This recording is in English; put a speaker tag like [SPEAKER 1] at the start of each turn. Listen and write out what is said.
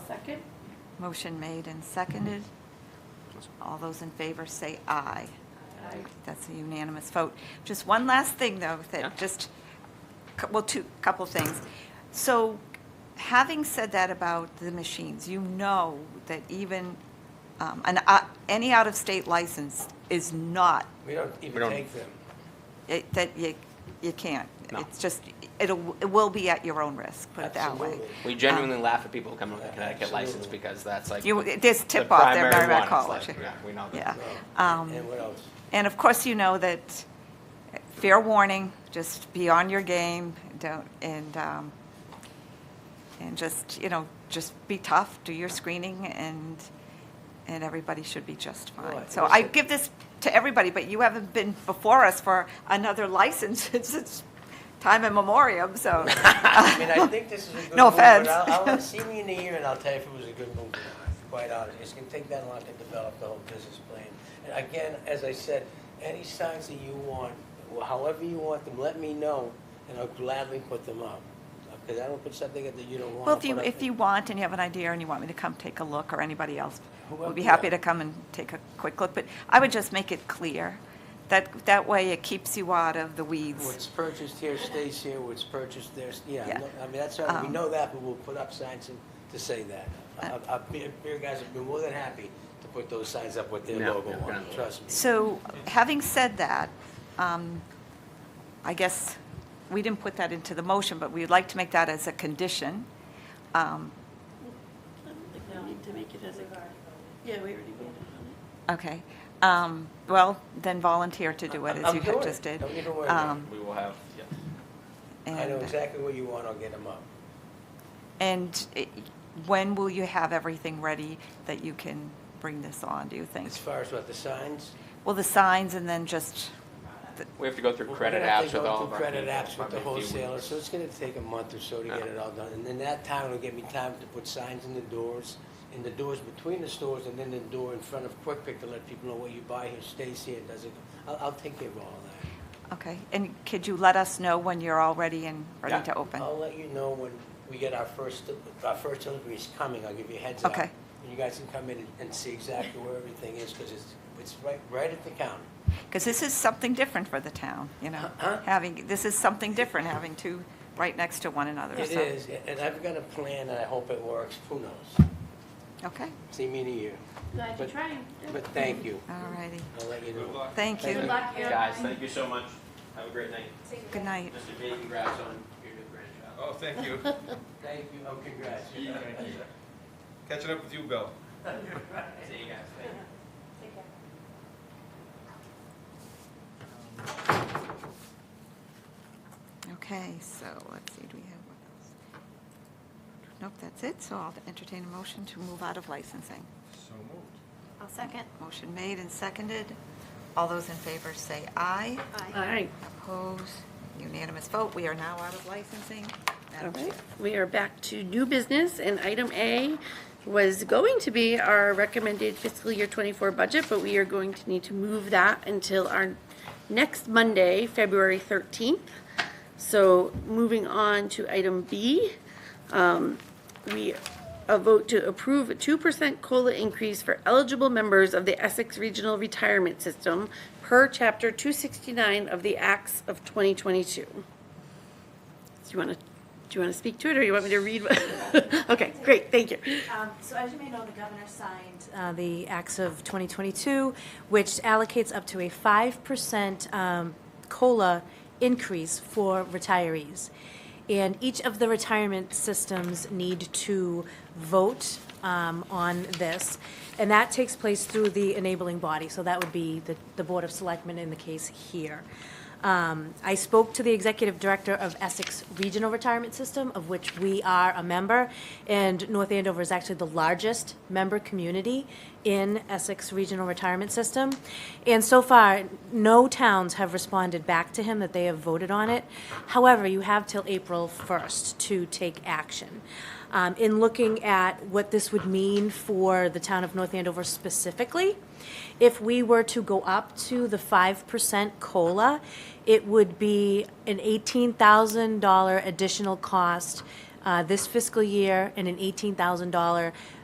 [SPEAKER 1] Second?
[SPEAKER 2] Motion made and seconded. All those in favor say aye.
[SPEAKER 1] Aye.
[SPEAKER 2] That's a unanimous vote. Just one last thing, though,
[SPEAKER 1] Yeah.
[SPEAKER 2] that just, cou- well, two, couple things. So having said that about the machines, you know that even um, an, o- any out-of-state license is not,
[SPEAKER 3] We don't
[SPEAKER 4] We
[SPEAKER 3] even
[SPEAKER 4] don't-
[SPEAKER 3] take them.
[SPEAKER 2] it- that you, you can't.
[SPEAKER 4] No.
[SPEAKER 2] It's just, it'll, it will be at your own risk, put it that way.
[SPEAKER 3] Absolutely.
[SPEAKER 4] We genuinely laugh at people who come with a Connecticut license
[SPEAKER 3] Absolutely.
[SPEAKER 4] because that's like.
[SPEAKER 2] Um, You,
[SPEAKER 4] the-
[SPEAKER 2] there's
[SPEAKER 4] the
[SPEAKER 2] tip-off there,
[SPEAKER 4] primary
[SPEAKER 2] Merrimack
[SPEAKER 4] one. It's
[SPEAKER 2] College.
[SPEAKER 4] like, yeah, We know
[SPEAKER 2] Yeah.
[SPEAKER 4] that.
[SPEAKER 3] No.
[SPEAKER 2] Um,
[SPEAKER 3] And what else?
[SPEAKER 2] And of course, you know that, fair warning, just be on your game, don't, and, um, and just, you know, just be tough, do your screening, and, and everybody should be just
[SPEAKER 3] Well,
[SPEAKER 2] fine.
[SPEAKER 3] I
[SPEAKER 2] So
[SPEAKER 3] think
[SPEAKER 2] I
[SPEAKER 3] that-
[SPEAKER 2] give this to everybody, but you haven't been before us for another license since time immemorial, so.
[SPEAKER 3] I mean, I think this is a good move.
[SPEAKER 2] No offense.
[SPEAKER 3] but I'll, I'll see me in a year and I'll tell you if it was a good move or not, quite honest. It's gonna take that long to develop the whole business plan. And again, as I said, any signs that you want, however you want them, let me know and I'll gladly put them up. Because I don't put something that you don't want.
[SPEAKER 2] Well, if you,
[SPEAKER 3] put up
[SPEAKER 2] if you want and you have an idea and you want me to come take a look, or anybody else, we'll be
[SPEAKER 3] Whoever, yeah.
[SPEAKER 2] happy to come and take a quick look, but I would just make it clear. That, that way it keeps you out of the weeds.
[SPEAKER 3] What's purchased here stays here, what's purchased there, yeah,
[SPEAKER 2] Yeah.
[SPEAKER 3] no, I mean, that's, how- we
[SPEAKER 2] Um, Uh,
[SPEAKER 3] know that, but we'll put up signs and- to say that. Uh, I- I- I- Beer beer guys have been more than happy to put those signs up with their
[SPEAKER 4] No,
[SPEAKER 3] logo
[SPEAKER 4] no,
[SPEAKER 3] on,
[SPEAKER 4] no.
[SPEAKER 3] it, trust me.
[SPEAKER 2] So, having said that, um, I guess, we didn't put that into the motion, but we'd like to make that as a condition. Um,
[SPEAKER 5] I don't think we need to make it as a, yeah, we already voted on it.
[SPEAKER 2] Okay, Um, well, then volunteer to do it, as
[SPEAKER 3] I'm- I'm
[SPEAKER 2] you had
[SPEAKER 3] doing
[SPEAKER 2] just
[SPEAKER 3] it.
[SPEAKER 2] did.
[SPEAKER 3] Don't even worry about it.
[SPEAKER 2] Um,
[SPEAKER 4] We will have, yeah.
[SPEAKER 3] I know
[SPEAKER 2] and-
[SPEAKER 3] exactly what you want, I'll get them up.
[SPEAKER 2] And it- when will you have everything ready that you can bring this on, do you think?
[SPEAKER 3] As far as what, the signs?
[SPEAKER 2] Well, the signs and then just, the-
[SPEAKER 4] We have to go through
[SPEAKER 3] We're
[SPEAKER 4] credit
[SPEAKER 3] gonna have to
[SPEAKER 4] apps with
[SPEAKER 3] go
[SPEAKER 4] all
[SPEAKER 3] through
[SPEAKER 4] of our.
[SPEAKER 3] Credit
[SPEAKER 4] people,
[SPEAKER 3] apps with
[SPEAKER 4] probably
[SPEAKER 3] the
[SPEAKER 4] a few weeks.
[SPEAKER 3] wholesalers, so it's gonna take a month or so to get
[SPEAKER 4] Yeah.
[SPEAKER 3] it all done. And then that time will give me time to put signs in the doors, in the doors between the stores, and then the door in front of Quick Pick to let people know what you buy here stays here, doesn't, I'll, I'll take care of all that.
[SPEAKER 2] okay. And could you let us know when you're all ready and ready
[SPEAKER 4] Yeah.
[SPEAKER 2] to open?
[SPEAKER 3] I'll let you know when we get our first, our first delivery is coming, I'll give you a heads up.
[SPEAKER 2] Okay.
[SPEAKER 3] And you guys can come in and- and see exactly where everything is, because it's, it's right, right at the counter.
[SPEAKER 2] Because this is something different for the town, you know?
[SPEAKER 3] Huh?
[SPEAKER 2] Having, this is something different, having two right next to one another.
[SPEAKER 3] It
[SPEAKER 2] so-
[SPEAKER 3] is, and I've got a plan, and I hope it works, who knows?
[SPEAKER 2] Okay,
[SPEAKER 3] See me in a year,
[SPEAKER 5] Glad
[SPEAKER 3] you're
[SPEAKER 5] trying.
[SPEAKER 3] but thank you,
[SPEAKER 2] all righty.
[SPEAKER 3] I'll let you know.
[SPEAKER 2] Thank
[SPEAKER 3] Good
[SPEAKER 2] you.
[SPEAKER 5] luck,
[SPEAKER 4] Guys, thank you so much. Have a great night.
[SPEAKER 2] Good night.
[SPEAKER 4] Mr. B, congrats on your new grandchild.
[SPEAKER 6] Oh, thank you.
[SPEAKER 3] Thank you, oh, congrats.
[SPEAKER 6] Catching up with you, Bill.
[SPEAKER 4] See you guys. Thank you.
[SPEAKER 2] Okay, so let's see, do we have what else? Nope, that's it, so I'll entertain a motion to move out of licensing.
[SPEAKER 6] So moved.
[SPEAKER 5] I'll second.
[SPEAKER 2] Motion made and seconded. All those in favor say aye.
[SPEAKER 5] All right,
[SPEAKER 2] Opposed? Unanimous vote. We are now out of licensing.
[SPEAKER 5] all
[SPEAKER 2] Madam
[SPEAKER 5] right.
[SPEAKER 2] Chair.
[SPEAKER 5] We are back to new business, and item A was going to be our recommended fiscal year 24 budget, but we are going to need to move that until our next Monday, February 13th. So moving on to item B, um, we a vote to approve a 2% COLA increase for eligible members of the Essex Regional Retirement System per Chapter 269 of the Acts of 2022. Do you want to, do you want to speak to it, or you want me to read? what- Okay, great, thank you.
[SPEAKER 7] Um, So as you may know, the governor signed uh, the Acts of 2022, which allocates up to a 5% um, COLA increase for retirees. And each of the retirement systems need to vote um, on this. And that takes place through the enabling body, so that would be the- the Board of Selectmen in the case here. Um, I spoke to the executive director of Essex Regional Retirement System, of which we are a member, and North Andover is actually the largest member community in Essex Regional Retirement System. And so far, no towns have responded back to him that they have voted on it. However, you have till April 1st to take action. Um, In looking at what this would mean for the town of North Andover specifically, if we were to go up to the five percent COLA, it would be an eighteen thousand dollar additional cost uh, this fiscal year and an eighteen thousand dollar